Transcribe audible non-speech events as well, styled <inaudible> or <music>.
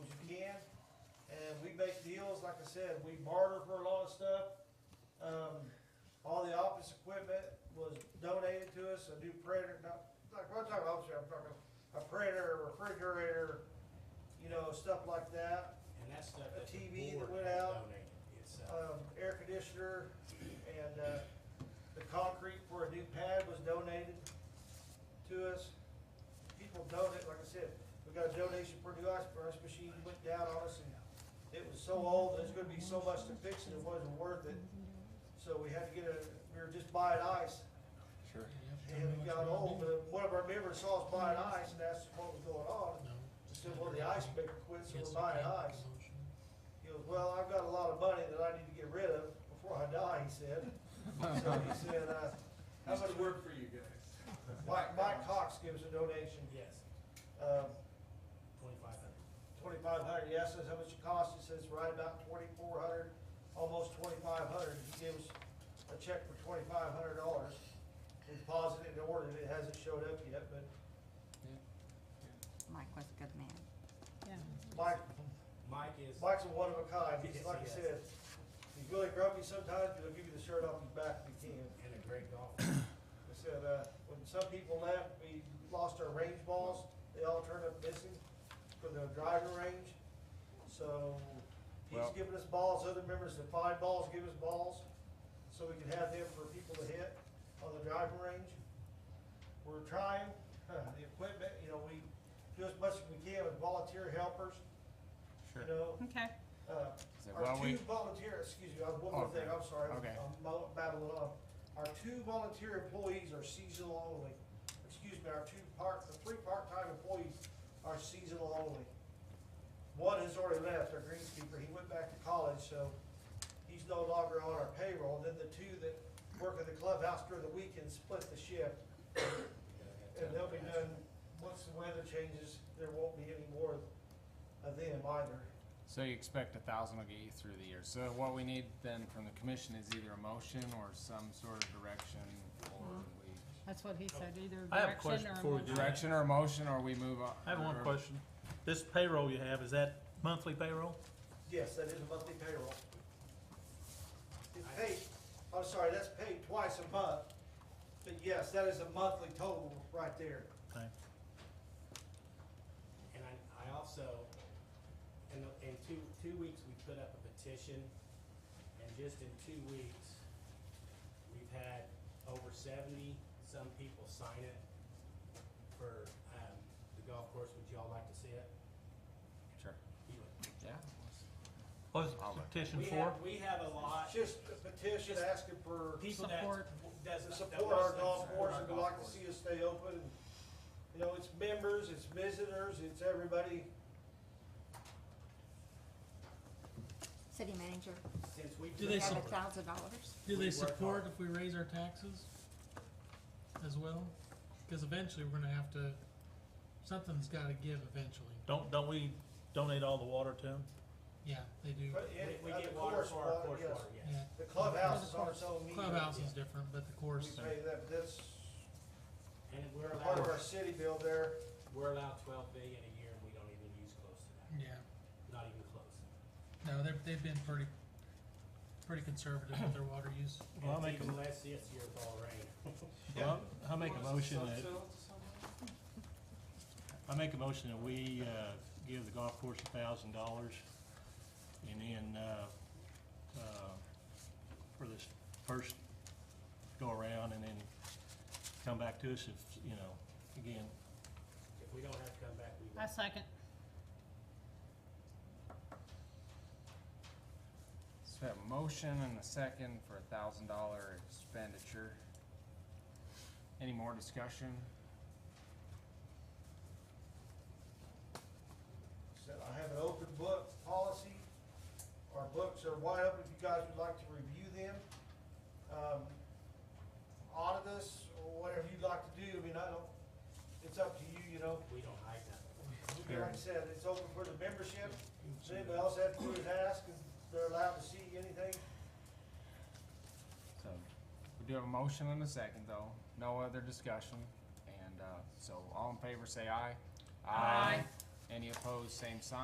we make deals, like I said, we barter for a lot of stuff. Um, all the office equipment was donated to us, a new printer, not, like, when I'm talking office, I'm talking a printer, refrigerator, you know, stuff like that. And that stuff A that the TV that board went has out. donated itself. um, air conditioner and, uh, the concrete for a new pad was donated to us. People donate, like I said, we got a donation for a new ice press machine, went down on us and it was so old, there's gonna be so much to fix and it wasn't worth it. So we had to get a, we were just buying ice Sure. and it got old, but one of our members saw us buying ice and asked us what was going on. No. And Said, well, the ice maker quit, so we're buying ice. He goes, well, I've got a lot of money that I need to get rid of before I die, he said. So <laughs> he said, uh, how much work, for you guys. Mike, Mike Cox gives a donation, Yes, um, twenty-five hundred. twenty-five hundred, he asks us how much it costs, he says right about twenty-four hundred, almost twenty-five hundred, he gives a check for twenty-five hundred dollars. We deposited and ordered it, it hasn't showed up yet, but Mike was a good man. Mike, Mike is, Mike's a one of a kind, he's, Yes, like I he is. said, he's really grumpy sometimes, but he'll give you the shirt off his back if he can. and a great golfer. I said, uh, when some people left, we lost our range balls. They all turned up missing for the driving range. So he's Well- giving us balls, other members that find balls, give us balls, so we can have them for people to hit on the driving range. We're trying, <laughs> uh, the equipment, you know, we do as much as we can with volunteer helpers, you Sure. know. Okay. Uh, So Our while two we- volunteer, excuse me, uh, one more Okay. thing, I'm sorry, I'm Okay. I'm mo- babbling on. Our two volunteer employees are seasonal only. Excuse me, our two part, the three part-time employees are seasonal only. One has already left, our greenskeeper, he went back to college, so he's no longer on our payroll. Then the two that work at the clubhouse during the weekend split the shift. And they'll be done, once the weather changes, there won't be any more of them either. So you expect a thousand will get you through the year. So what we need then from the commission is either a motion or some sort of direction or we. That's what he said, either I have a direction question or. before we do motion. that. Direction or a motion or we move on. I have one or- question. This payroll you have, is that monthly payroll? Yes, that is a monthly payroll. It's paid, I'm sorry, that's paid twice a month, but yes, that is a monthly total right there. Okay. And I, I also, in, the- in two, two weeks, we put up a petition, and just in two weeks, we've had over seventy some people sign it for, um, the golf course. Would y'all like to see it? Sure. Yeah. What is the I'll look. petition We for? have, we have a It's lot, just a petition asking for people that Support. doesn't. support our that golf doesn't course and support our would like golf to see us stay open. And, You know, it's members, it's visitors, it's everybody. City manager, course. Since we. Do put up we they have a support- thousand dollars. Do they support if we raise our taxes as well? Because eventually, we're gonna have to, something's gotta give eventually. Don't, don't we donate all the water to them? Yeah, they do. But We, it- we uh, get the water course for our water, course yes. water, Yeah, yes. The clubhouse is on its own meter. clubhouse is different, but the We course, pay that, that's And we're part of our allowed, city bill there. we're allowed twelve billion a year, and we don't even use close to yeah. that, not even close. No, they've, they've been pretty, pretty conservative with their water use. Well, I'll And make it's a- even less this year with all the rain. Well, I make a motion that, I make a motion that we, uh, give the golf course a thousand dollars and then, uh, uh, for this first go around and then come back to us if, you know, again, If we don't have to come back, we I will. second. So we have a motion and a second for a thousand dollar expenditure. Any more discussion? So I have an open book policy. Our books are wide open if you guys would like to review them. Um, Audit us or whatever you'd like to do. I mean, I don't, it's up to you, you know. We don't hide nothing. Like I said, it's open for the membership. So anybody else has to do is ask and they're allowed to see anything. So we do have a motion and a second though. No other discussion. And, uh, so all in favor say aye. Aye. Any opposed, same sign.